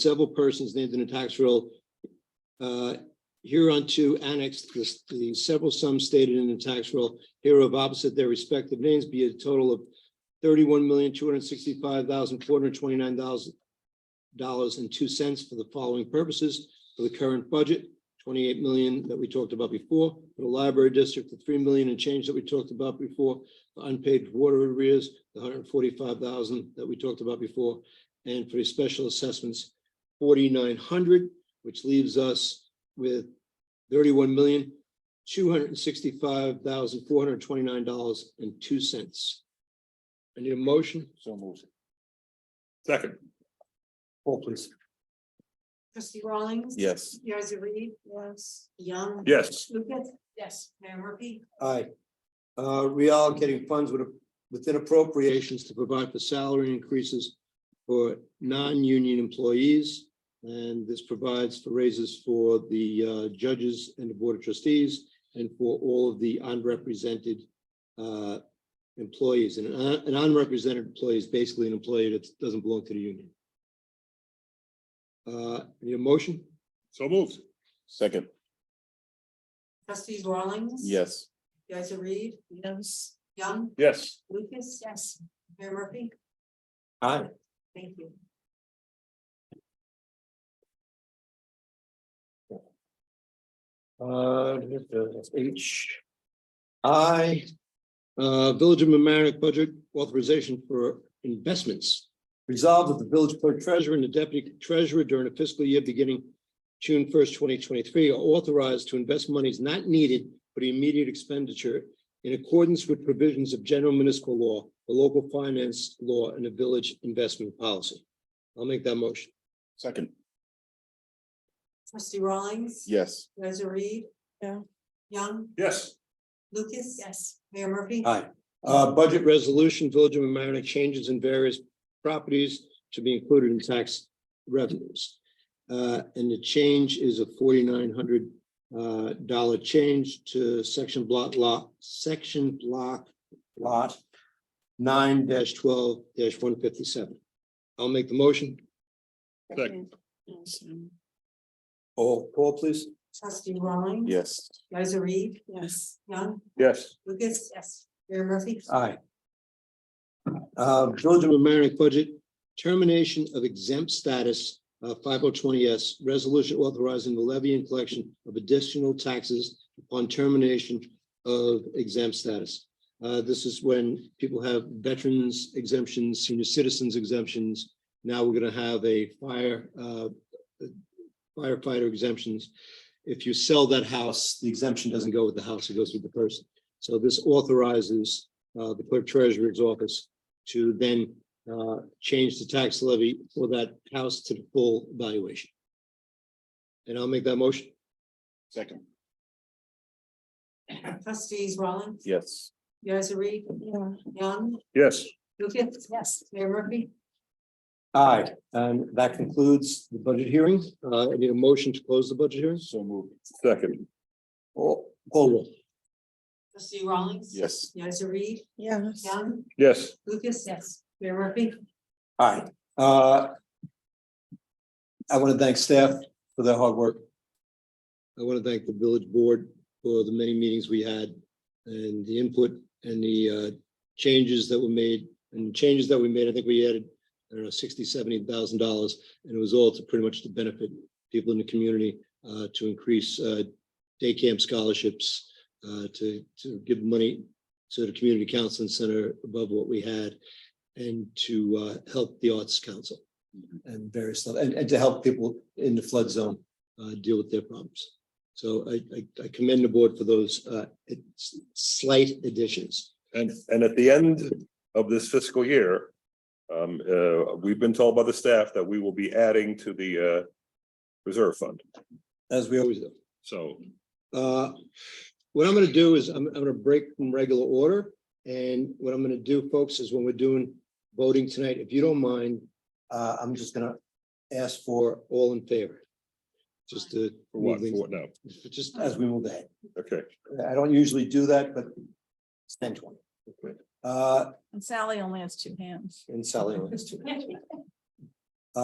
several persons named in the tax roll uh, hereunto annexed the- the several sums stated in the tax roll hereof opposite their respective names be a total of thirty-one million, two hundred sixty-five thousand, four hundred twenty-nine thousand dollars and two cents for the following purposes for the current budget, twenty-eight million that we talked about before, for the library district, the three million and change that we talked about before, for unpaid water arrears, the hundred and forty-five thousand that we talked about before, and for the special assessments, forty-nine hundred, which leaves us with thirty-one million, two hundred and sixty-five thousand, four hundred and twenty-nine dollars and two cents. I need a motion? So moved. Second. Paul, please. Trustee Rawlings. Yes. Yaz Reed. Yes. Young. Yes. Lucas. Yes. Mayor Murphy. Aye. Uh, reallocating funds with, within appropriations to provide for salary increases for non-union employees. And this provides for raises for the uh, judges and the board of trustees and for all of the unrepresented uh, employees. And an un- an unrepresented employee is basically an employee that doesn't belong to the union. Uh, need a motion? So moved. Second. Trustee Rawlings. Yes. Yaz Reed. Yes. Young. Yes. Lucas. Yes. Mayor Murphy. Aye. Thank you. Uh, H. I. Uh, Village of Mamaroneck budget authorization for investments. Resolved that the village clerk treasurer and the deputy treasurer during the fiscal year beginning June first, twenty twenty-three are authorized to invest monies not needed for the immediate expenditure in accordance with provisions of general municipal law, the local finance law, and the village investment policy. I'll make that motion. Second. Trustee Rawlings. Yes. Yaz Reed. Yeah. Young. Yes. Lucas. Yes. Mayor Murphy. Aye. Uh, budget resolution, Village of Mamaroneck changes in various properties to be included in tax revenues. Uh, and the change is a forty-nine hundred uh dollar change to section block lot, section block lot nine twelve one fifty-seven. I'll make the motion. Second. All, Paul, please. Trustee Rawlings. Yes. Yaz Reed. Yes. Young. Yes. Lucas. Yes. Mayor Murphy. Aye. Uh, Village of Mamaroneck budget, termination of exempt status, uh, five oh twenty S, resolution authorizing the levy and collection of additional taxes upon termination of exempt status. Uh, this is when people have veterans exemptions, senior citizens exemptions. Now we're gonna have a fire, uh, firefighter exemptions. If you sell that house, the exemption doesn't go with the house, it goes with the person. So this authorizes uh, the clerk treasurer's office to then uh, change the tax levy for that house to the full valuation. And I'll make that motion. Second. Trustees Rawlings. Yes. Yaz Reed. Young. Yes. Lucas. Yes. Mayor Murphy. Aye, and that concludes the budget hearing. Uh, I need a motion to close the budget hearing. So moved. Second. Call roll. Trustee Rawlings. Yes. Yaz Reed. Yes. Young, Yes. Lucas, yes. Mayor Murphy, Aye. Uh, I want to thank staff for their hard work. I want to thank the village board for the many meetings we had and the input and the uh, changes that were made and changes that we made. I think we added, I don't know, sixty, seventy thousand dollars. And it was all to pretty much to benefit people in the community uh, to increase uh, day camp scholarships, uh, to, to give money to the community counseling center above what we had and to uh, help the Arts Council. Mm-hmm. And various, stuff, and, and to help people in the flood zone uh, deal with their problems. So I, I- I commend the board for those uh, it's slight additions. And, and at the end of this fiscal year, um, uh, we've been told by the staff that we will be adding to the, uh, reserve fund. As we always do. So Uh, What I'm going to do is I'm, I'm going to break from regular order. And what I'm going to do, folks, is when we're doing voting tonight, if you don't mind, uh, I'm just going to ask for all in favor. Just to. for what, move for things- what now? Just as we move ahead. Okay, I don't usually do that, but it's ten twenty. Okay. Uh, And Sally only has two hands. and Sally. always do.